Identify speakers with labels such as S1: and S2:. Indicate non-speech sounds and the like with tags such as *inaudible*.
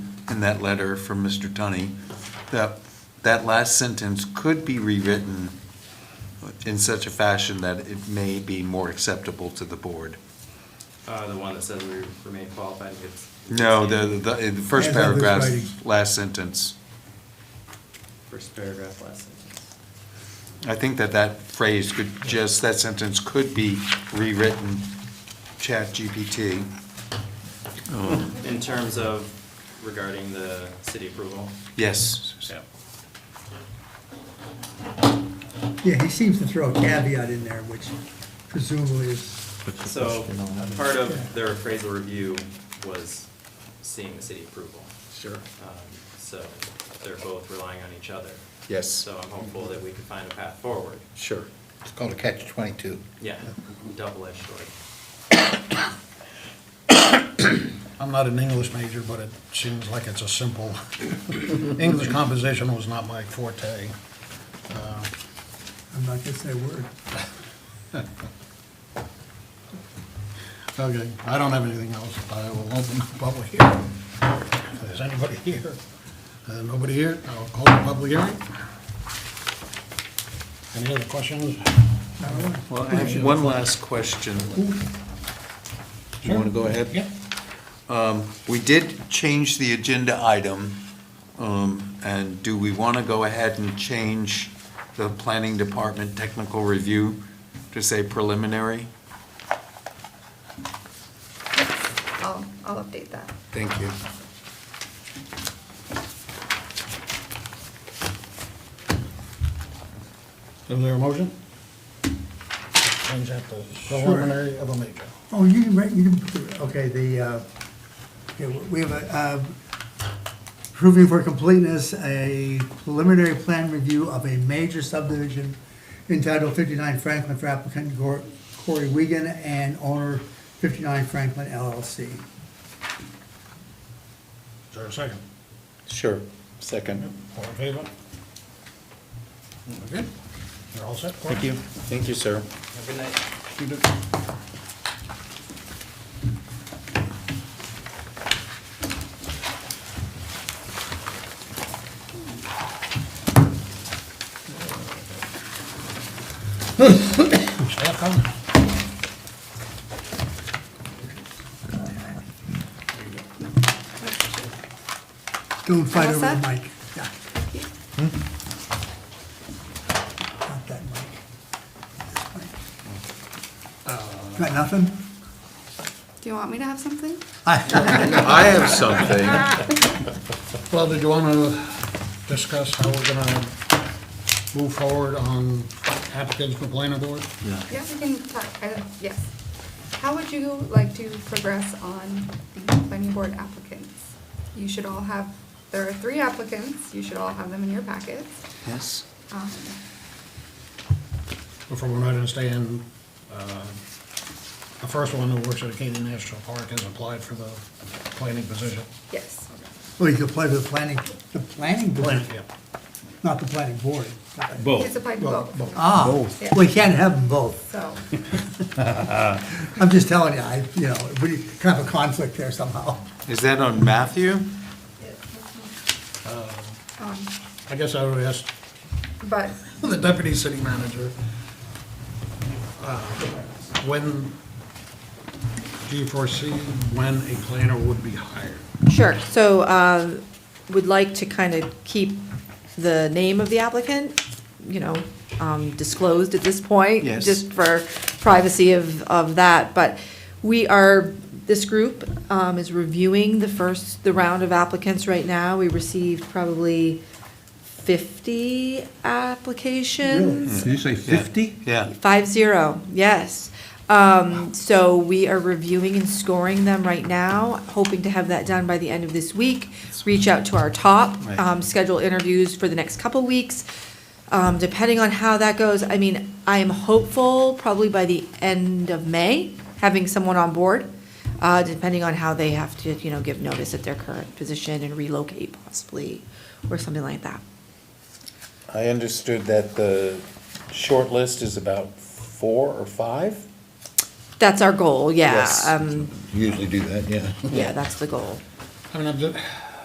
S1: that letter from Mr. Tunney, that, that last sentence could be rewritten in such a fashion that it may be more acceptable to the board.
S2: Uh, the one that says we remain qualified it's.
S1: No, the, the, in the first
S3: As of this
S1: paragraph,
S3: writing.
S1: last sentence.
S2: First paragraph, last sentence.
S1: I think that that phrase could just, that sentence could be rewritten, chat GPT.
S2: In terms of regarding the city approval.
S1: Yes.
S3: Yeah, he seems to throw a caveat in there, which presumably is,
S2: So, part of their appraisal review was seeing the city approval.
S1: Sure.
S2: Um, So, they're both relying on each other.
S1: Yes.
S2: So I'm hopeful that we can find a path forward.
S1: Sure.
S4: It's called a catch twenty-two.
S2: Yeah, double-edged sword.
S5: I'm not an English major, but it seems like it's a simple, English composition was not my forte. Uh,
S3: I'm not gonna say a word.
S5: Okay, I don't have anything else, I will open the public hearing. If there's anybody here, Uh, nobody here, I'll call the public hearing. Any other questions?
S3: Not a word.
S1: Well, I have one last question. You want to go ahead? Um,
S5: Yeah.
S1: We did change the agenda item, um, and do we want to go ahead and change the planning department technical review to say preliminary?
S6: I'll, I'll update that.
S1: Thank you.
S5: Is there a motion? Change that to preliminary of a major.
S3: Oh, you can, write- you can, put the- okay, the, uh, okay, we have a, uh, proving for completeness, a preliminary plan review of a major subdivision entitled fifty-nine Franklin for applicant Gor- Corey Wiegand and owner fifty-nine Franklin LLC.
S5: Is there a second?
S1: Sure, second.
S5: All in favor? We're Good. You're all set? Thank
S1: Thank you, sir.
S2: Have a good night.
S5: Staff comment?
S3: Don't fight
S6: All
S3: over the
S6: set? Hmm?
S3: mic. Yeah. Not that mic. This mic. Uh. Got nothing?
S6: Do you want me to have something?
S1: I have something.
S5: Well, did you want to discuss how we're going to move forward on applicants for planning board?
S6: Yeah, we can talk, uh, yes. How would you like to progress on the planning board applicants? You should all have, there are three applicants, you should all have them in your packets.
S1: Yes?
S6: Um,
S5: Before we're not going to stay in, uh, the first one who works at Acadia National Park has applied for the planning position.
S6: Yes,
S3: Well, you could apply to the planning, the planning board,
S5: Yeah.
S3: not the planning board. Got it.
S6: he's applied to both,
S3: Ah,
S6: Yeah.
S3: we can't have them both.
S6: so,
S3: I'm just telling you, I, you know, we kind of a conflict there somehow.
S1: Is that on Matthew?
S6: um,
S5: I guess I would ask *laughs*
S6: but
S5: the deputy city manager, uh, when, do you foresee when a planner would be hired?
S7: Sure, so uh, would like to kind of keep the name of the applicant, you know, um, disclosed at this point.
S1: Yes.
S7: Just for privacy of, of that, but we are, this group um, is reviewing the first, the round of applicants right now. We received probably 50 applications.
S4: Did you say fifty?
S1: Yeah.
S7: Five zero, yes. Um, so we are reviewing and scoring them right now, hoping to have that done by the end of this week. Reach out to our top,
S1: Right.
S7: um, schedule interviews for the next couple weeks. Um, depending on how that goes, I mean, I am hopeful probably by the end of May, having someone on board. Uh, depending on how they have to, you know, give notice at their current position and relocate possibly, or something like that.
S8: I understood that the short list is about four or five?
S7: That's our goal, yeah.
S8: Yes.
S7: Um,
S4: Usually do that, yeah.
S7: yeah, that's the goal.
S5: I mean, I'm just,